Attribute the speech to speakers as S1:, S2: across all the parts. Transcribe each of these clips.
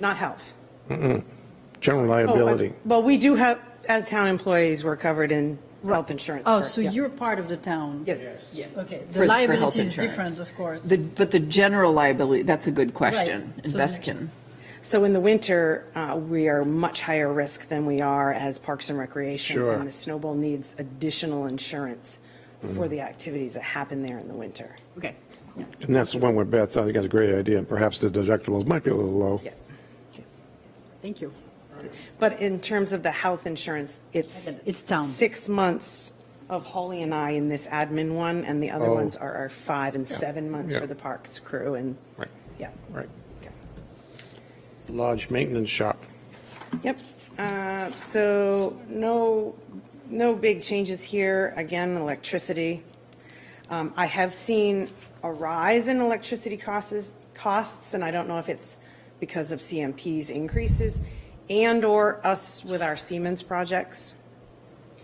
S1: not health.
S2: General
S3: Oh,
S2: liability.
S1: Well, we do have, as town employees, we're covered in health insurance.
S3: Oh,
S1: for-
S3: so
S1: yeah.
S3: you're part of the town?
S1: Yes.
S3: Yeah, okay. The
S4: for- for health
S3: liability is different,
S4: insurance.
S3: of course.
S4: The- But the general liability, that's a good question.
S3: Right.
S4: And
S3: So
S4: Beth
S3: next-
S4: can,
S1: So in the winter, uh, we are much higher risk than we are as Parks and Recreation.
S2: Sure.
S1: And the snowball needs additional insurance for the activities that happen there in the winter.
S3: Okay.
S2: And that's the one where Beth, I think that's a great idea. Perhaps the deductibles might be a little low.
S1: Yeah.
S3: Thank you.
S1: But in terms of the health insurance, it's.
S3: It's town.
S1: Six months of Holly and I in this admin one, and the other
S2: Oh.
S1: ones are our five and seven months
S2: Yeah.
S1: for the parks crew and,
S2: Right,
S1: yeah.
S2: right.
S1: Okay.
S2: Lodge maintenance shop.
S1: Yep. Uh, So no, no big changes here. Again, electricity. Um, I have seen a rise in electricity costs, costs, and I don't know if it's because of CMP's increases and/or us with our Siemens projects.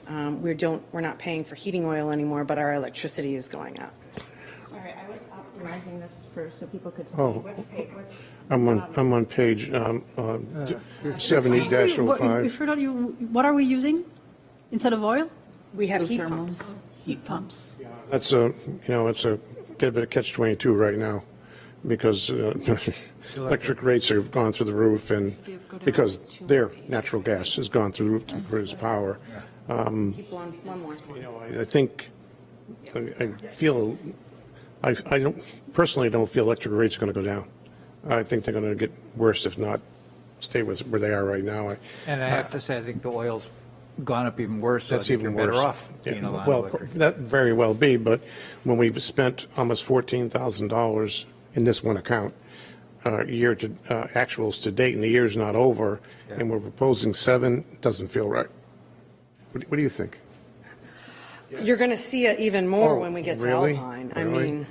S1: Um, We don't, we're not paying for heating oil anymore, but our electricity is going up.
S5: Sorry, I was optimizing this for, so people could see
S2: Oh.
S5: what page, what.
S2: I'm on, I'm on page um, uh, 70-05.
S3: If you're not, you, what are we using instead of oil?
S1: We have heat
S4: Geothermal.
S1: pumps.
S3: Heat pumps.
S2: That's a, you know, it's a bit of a catch-22 right now because uh, electric rates have gone through the roof and because their natural gas has gone through the roof to produce power.
S1: Keep one, one more.
S2: I think, I I feel, I, I don't, personally don't feel electric rates are going to go down. I think they're going to get worse if not stay with where they are right now. I-
S6: And I have to say, I think the oil's gone up even worse, so I
S2: That's
S6: think you're
S2: even
S6: better
S2: worse.
S6: off
S2: Yeah,
S6: being a lot
S2: Well,
S6: of electric.
S2: that very well be, but when we've spent almost $14,000 in this one account, uh, year to, uh, actuals to date, and the year's not over, and we're proposing seven, doesn't feel right. What do- what do you think?
S1: You're going to see it even more
S2: Oh,
S1: when we get to
S2: really?
S1: Alpine. I
S2: Really?
S1: mean.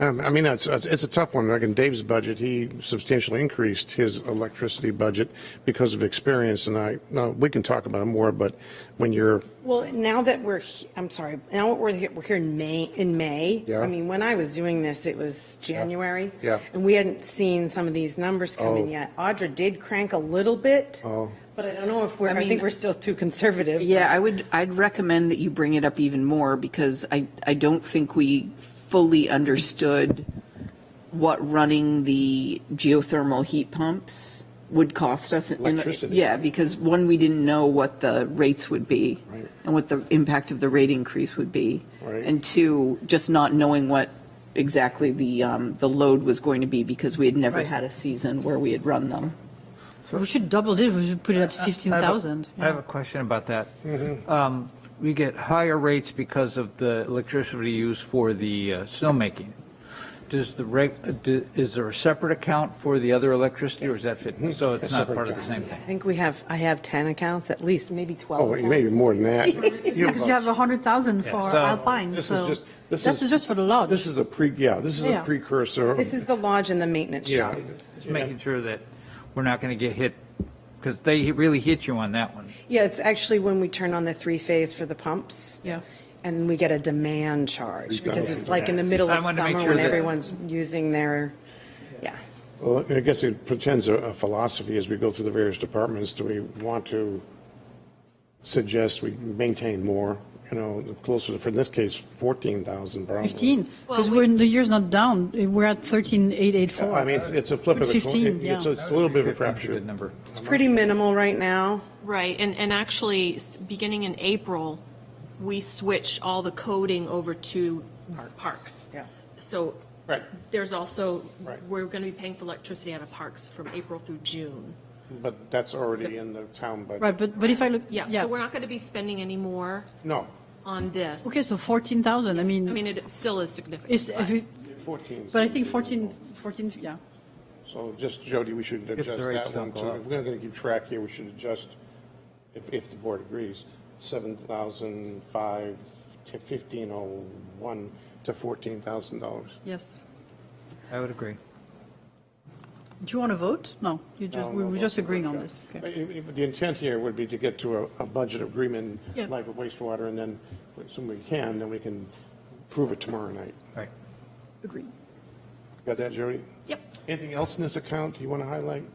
S2: Um, I mean, it's, it's it's a tough one. Like in Dave's budget, he substantially increased his electricity budget because of experience, and I, now, we can talk about it more, but when you're,
S1: Well, now that we're, he- I'm sorry, now that we're here, we're here in May, in May.
S2: Yeah.
S1: I mean, when I was doing this, it was January.
S2: Yeah.
S1: And we hadn't seen some of these numbers come in
S2: Oh.
S1: yet. Audra did crank a little bit.
S2: Oh.
S1: But I don't know if we're,
S4: I
S1: I
S4: mean-
S1: think we're still too conservative.
S4: yeah, I would, I'd recommend that you bring it up even more because I, I don't think we fully understood what running the geothermal heat pumps would cost us. in-
S2: Electricity.
S4: Yeah, because one, we didn't know what the rates would be
S2: Right.
S4: and what the impact of the rate increase would be.
S2: Right.
S4: And two, just not knowing what exactly the, um, the load was going to be because we had never
S3: Right.
S4: had a season where we had run them.
S3: We should double this, we should put it at
S6: I have a-
S3: 15,000.
S6: I have a question about that. Um, We get higher rates because of the electricity used for the uh, snowmaking. Does the, reg- uh, do- is there a separate account for the other electricity, or is that fit, so it's not part of the same thing?
S1: I think we have, I have 10 accounts at least, maybe 12.
S2: oh, maybe
S1: accounts.
S2: more than that.
S3: Because you have 100,000 for
S6: so-
S3: Alpine,
S2: This is
S3: so.
S2: just, this is.
S3: This is just for the lodge.
S2: This is a pre, yeah, this is a
S3: Yeah.
S2: precursor.
S1: This is the lodge and the maintenance
S2: Yeah.
S1: shop.
S6: Just making sure that we're not going to get hit, because they really hit you on that one.
S1: Yeah, it's actually when we turn on the three-phase for the pumps.
S3: Yeah.
S1: And we get a demand charge because it's like in the middle
S6: I
S1: of
S6: wanted to make
S1: summer
S6: sure
S1: when
S6: that-
S1: everyone's using their, yeah.
S2: Well, I guess it pretends a- a philosophy as we go through the various departments. Do we want to suggest we maintain more, you know, closer to, for in this case, 14,000 probably.
S3: 15, because
S7: Well,
S3: we're, the year's not down, we're at 13,884.
S2: I mean, it's- it's a flip of the. coin.
S3: Put 15, yeah.
S2: It's a it's a little bit of a
S6: That's
S2: crapshoot.
S6: a good number.
S1: It's pretty minimal right now.
S7: Right, and, and actually, s- beginning in April, we switch all the coding over to parks.
S1: Yeah.
S7: So
S2: Right.
S7: there's also,
S2: Right.
S7: we're going to be paying for electricity out of parks from April through June.
S2: But that's already in the town budget.
S3: Right, but, but if I look,
S7: Yeah,
S3: yeah,
S7: so we're not going to be spending any more
S2: No,
S7: on this.
S3: okay, so 14,000, I
S7: I
S3: mean,
S7: mean, it still is
S3: it's,
S7: significant.
S3: if it-
S2: 14.
S3: but I think 14, 14, yeah.
S2: So just, Jody, we should adjust
S6: rates
S2: that one
S6: don't go
S2: too.
S6: up.
S2: If we're going to keep track here, we should adjust, if, if the board agrees, 7,005 to 1501 to $14,000.
S3: Yes.
S6: I would agree.
S3: Do you want to vote? No, you just, we were just agreeing on this.
S2: But
S3: Okay.
S2: it- it- The intent here would be to get to a, a budget agreement,
S3: Yeah.
S2: like with wastewater, and then, when we can, then we can prove it tomorrow night.
S6: Right.
S3: Agreed.
S2: Got that, Jody?
S7: Yep.
S2: Anything else in this account you want to highlight?